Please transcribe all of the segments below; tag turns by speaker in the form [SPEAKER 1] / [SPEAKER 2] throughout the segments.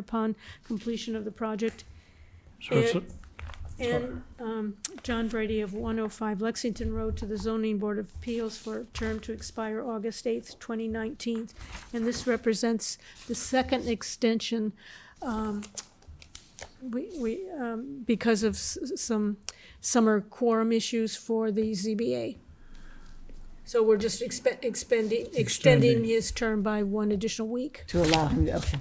[SPEAKER 1] upon completion of the project.
[SPEAKER 2] So it's,
[SPEAKER 1] It- And um, John Brady of 105 Lexington Road to the Zoning Board of Appeals for a term to expire August 8th, 2019. And this represents the second extension um, we, we, um, because of s- s- some summer quorum issues for the ZBA. So we're just expe- expending, extending
[SPEAKER 2] Extending.
[SPEAKER 1] his term by one additional week.
[SPEAKER 3] To allow him, to- okay.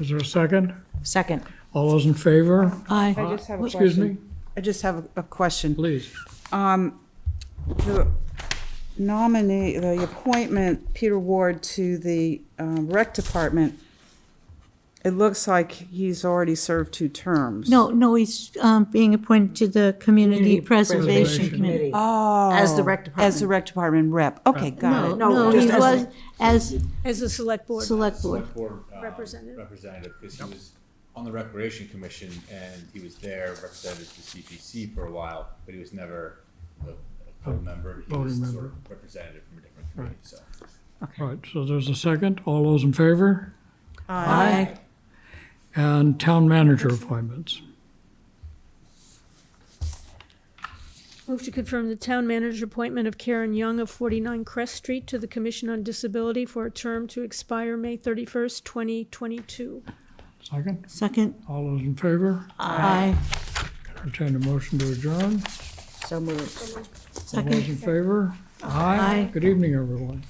[SPEAKER 2] is there a second?
[SPEAKER 3] Second.
[SPEAKER 2] All those in favor?
[SPEAKER 3] Aye.
[SPEAKER 4] I just have a
[SPEAKER 2] Excuse me?
[SPEAKER 4] question. I just have a- a question.
[SPEAKER 2] Please.
[SPEAKER 4] The nominee, the appointment, Peter Ward, to the um, rec department, it looks like he's already served two terms.
[SPEAKER 5] No, no, he's um, being appointed to the Community Preservation Committee.
[SPEAKER 4] Oh.
[SPEAKER 3] As the rec
[SPEAKER 4] As the rec department rep. Okay, got
[SPEAKER 5] No,
[SPEAKER 4] it.
[SPEAKER 5] no, he
[SPEAKER 3] just as-
[SPEAKER 5] was as
[SPEAKER 1] As a select board
[SPEAKER 5] Select Board.
[SPEAKER 6] select board um,
[SPEAKER 1] Representative.
[SPEAKER 6] representative, because he was on the Recreation Commission, and he was there represented the CPC for a while, but he was never a a full member. He was
[SPEAKER 2] voting
[SPEAKER 6] sort of representative from a different committee, so.
[SPEAKER 2] All right, so there's a second. All those in favor?
[SPEAKER 3] Aye.
[SPEAKER 2] And town manager appointments.
[SPEAKER 1] Move to confirm the town manager appointment of Karen Young of 49 Crest Street to the Commission on Disability for a term to expire May 31st, 2022.
[SPEAKER 2] Second.
[SPEAKER 5] second.
[SPEAKER 2] All those in favor?
[SPEAKER 5] Aye.
[SPEAKER 2] Entertain a motion to adjourn.
[SPEAKER 3] So moved.
[SPEAKER 2] All those
[SPEAKER 5] Second.
[SPEAKER 2] in favor? Aye. Good evening, everyone.